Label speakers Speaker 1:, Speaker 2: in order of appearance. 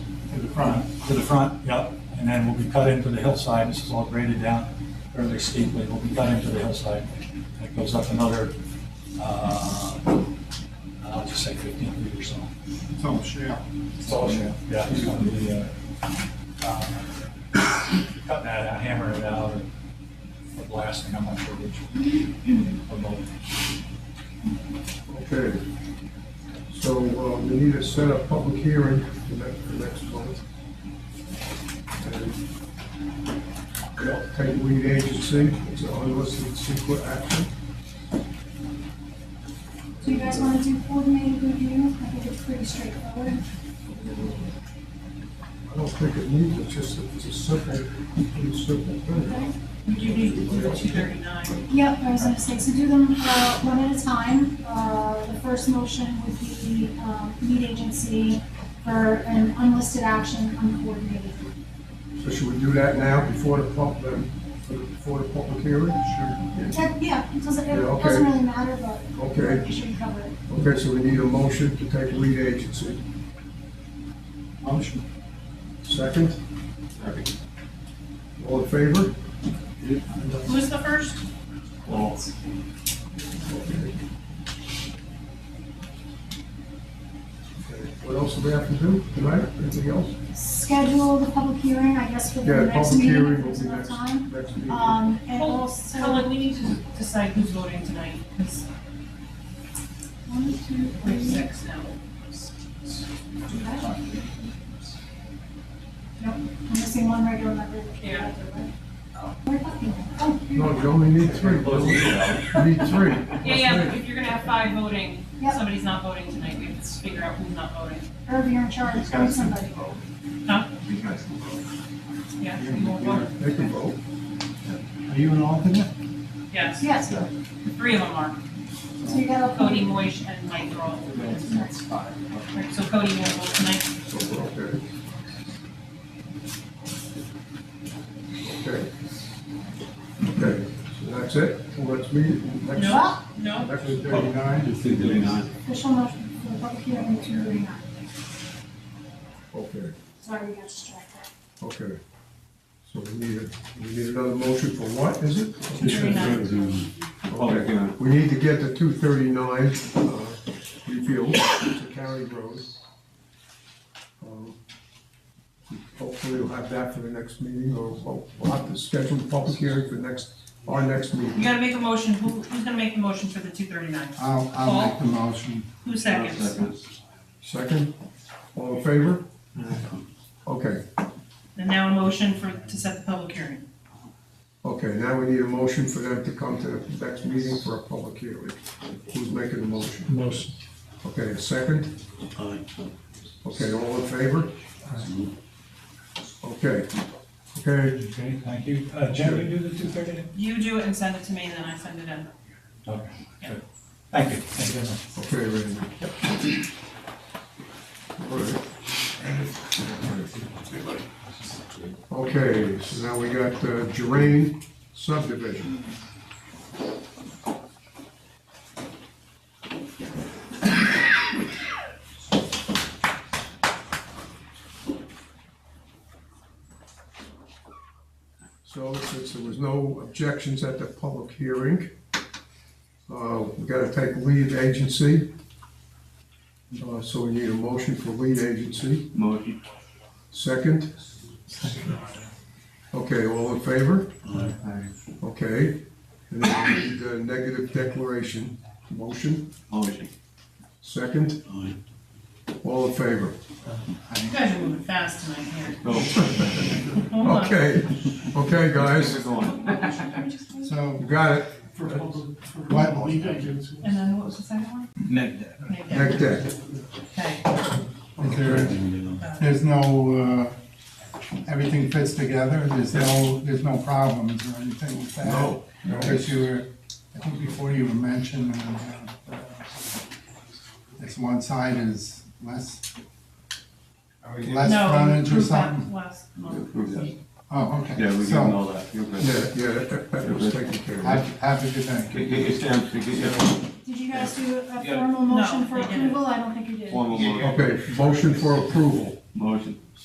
Speaker 1: front, to the front, yep. And then we'll be cut into the hillside. This is all graded down fairly steeply. We'll be cut into the hillside. And it goes up another, uh, I'll just say 15 feet or so.
Speaker 2: It's all shale.
Speaker 1: It's all shale. Yeah, it's gonna be, uh, uh, cutting that out, hammering it out, or blasting, I'm not sure which. Or both.
Speaker 2: Okay. So uh, we need to set a public hearing for next, for next month. And we don't Take lead agency, it's an unlisted secret action.
Speaker 3: Do you guys want to do coordinated review? I think it's pretty straightforward.
Speaker 2: I don't think it needs, it's just, it's a simple, pretty simple thing.
Speaker 4: You need to do the two thirty-nine.
Speaker 3: Yep, I was gonna say, so do them, uh, one at a time. Uh, the first motion would be, um, lead agency for an unlisted action uncoordinated.
Speaker 2: So should we do that now before the pub, then, before the public hearing? Sure.
Speaker 3: That, yeah, it doesn't, it
Speaker 2: Yeah, okay.
Speaker 3: doesn't really matter, but.
Speaker 2: Okay.
Speaker 3: You should cover it.
Speaker 2: Okay, so we need a motion to take lead agency.
Speaker 1: Motion.
Speaker 2: Second? All in favor?
Speaker 4: Who's the first?
Speaker 2: Okay. Okay, What else do we have to do tonight? Anything else?
Speaker 3: Schedule the public hearing, I guess, for the
Speaker 2: Yeah,
Speaker 3: next
Speaker 2: public
Speaker 3: meeting,
Speaker 2: hearing
Speaker 3: if
Speaker 2: will
Speaker 3: there's
Speaker 2: be
Speaker 3: enough
Speaker 2: next,
Speaker 3: time.
Speaker 2: next meeting.
Speaker 3: Um, and also.
Speaker 4: Helen, we need to decide who's voting tonight, because
Speaker 3: One, two,
Speaker 4: we have
Speaker 3: three.
Speaker 4: six now.
Speaker 3: Nope, I'm missing one regular member.
Speaker 4: Yeah.
Speaker 3: We're talking. Oh, you're
Speaker 2: No,
Speaker 3: right.
Speaker 2: you only need three. You need three.
Speaker 4: Yeah, yeah, but if you're gonna have five voting,
Speaker 3: Yep.
Speaker 4: somebody's not voting tonight, we have to figure out who's not voting.
Speaker 3: Irv, you're in charge,
Speaker 5: Got
Speaker 3: Call
Speaker 5: some
Speaker 3: somebody.
Speaker 5: vote.
Speaker 4: Huh?
Speaker 5: You guys can vote.
Speaker 4: Yeah, you won't vote.
Speaker 2: They can vote.
Speaker 1: Are you an alternate?
Speaker 4: Yes,
Speaker 3: Yes, so
Speaker 4: three of them are,
Speaker 3: you got a.
Speaker 4: Cody, Moish, and Mike are all. voting.
Speaker 5: That's five.
Speaker 4: Right, So Cody won't vote tonight.
Speaker 2: So, okay. Okay. Okay, so that's it. So let's meet next,
Speaker 4: No, no,
Speaker 2: next thirty-nine.
Speaker 3: Official motion for the public hearing, two thirty-nine.
Speaker 2: Okay,
Speaker 3: Sorry, we got distracted.
Speaker 2: okay. So we need, a- we need another motion for what, is it?
Speaker 4: two thirty-nine.
Speaker 2: Okay. We need to get the two thirty-nine, uh, repealed, to County Road. Um, Hopefully we'll have that for the next meeting, or we'll- we'll have to schedule a public hearing for next, our next
Speaker 4: You
Speaker 2: meeting.
Speaker 4: gotta make a motion, who, who's gonna make the motion for the two thirty-nine?
Speaker 6: I'll, I'll make the motion.
Speaker 4: Who seconds?
Speaker 2: Second, all in favor? Okay,
Speaker 4: And now a motion for, to set the public hearing.
Speaker 2: okay, now we need a motion for them to come to the next meeting for a public hearing. Who's making the motion? Motion. Okay, second? Okay, all in favor? Okay, okay,
Speaker 1: Okay, thank you. Uh, Jen, you do the two thirty?
Speaker 4: You do it and send it to me, and then I send it in.
Speaker 1: Okay, good. Thank you. Thank you very much.
Speaker 2: okay, Randy. All right. Okay, so now we got uh, Drain subdivision. So since there was no objections at the public hearing, uh, we gotta take lead agency. Uh, So we need a motion for lead agency.
Speaker 5: Motion.
Speaker 2: Second? Okay, all in favor? Okay. And then we need a negative declaration. Motion,
Speaker 5: Motion.
Speaker 2: second? All in favor?
Speaker 4: You guys are moving fast tonight here. Hold on.
Speaker 2: Okay, okay, guys,
Speaker 6: So
Speaker 2: you got it.
Speaker 6: what lead agency?
Speaker 4: And then what was the second one?
Speaker 5: Negative.
Speaker 2: Neg deck.
Speaker 4: Okay.
Speaker 6: There- There's no, uh, everything fits together, there's no, there's no problems or anything with that.
Speaker 2: No, no.
Speaker 6: Because you were, I think before you were mentioning, uh, this one side is less, less
Speaker 4: No,
Speaker 6: frontage or
Speaker 4: approved that
Speaker 6: something.
Speaker 4: Last
Speaker 5: Approved that.
Speaker 4: month.
Speaker 6: Oh, okay.
Speaker 5: Yeah, we can
Speaker 6: So,
Speaker 5: know that. You're good.
Speaker 2: Yeah, yeah, that- that was taken care of.
Speaker 6: have, have a good night.
Speaker 5: Get- get your stamps, get your
Speaker 3: Did you guys do a
Speaker 5: Yeah.
Speaker 3: formal motion for
Speaker 4: they didn't.
Speaker 3: approval? I don't think you did.
Speaker 5: formal motion.
Speaker 2: Okay, motion for approval.
Speaker 5: Motion.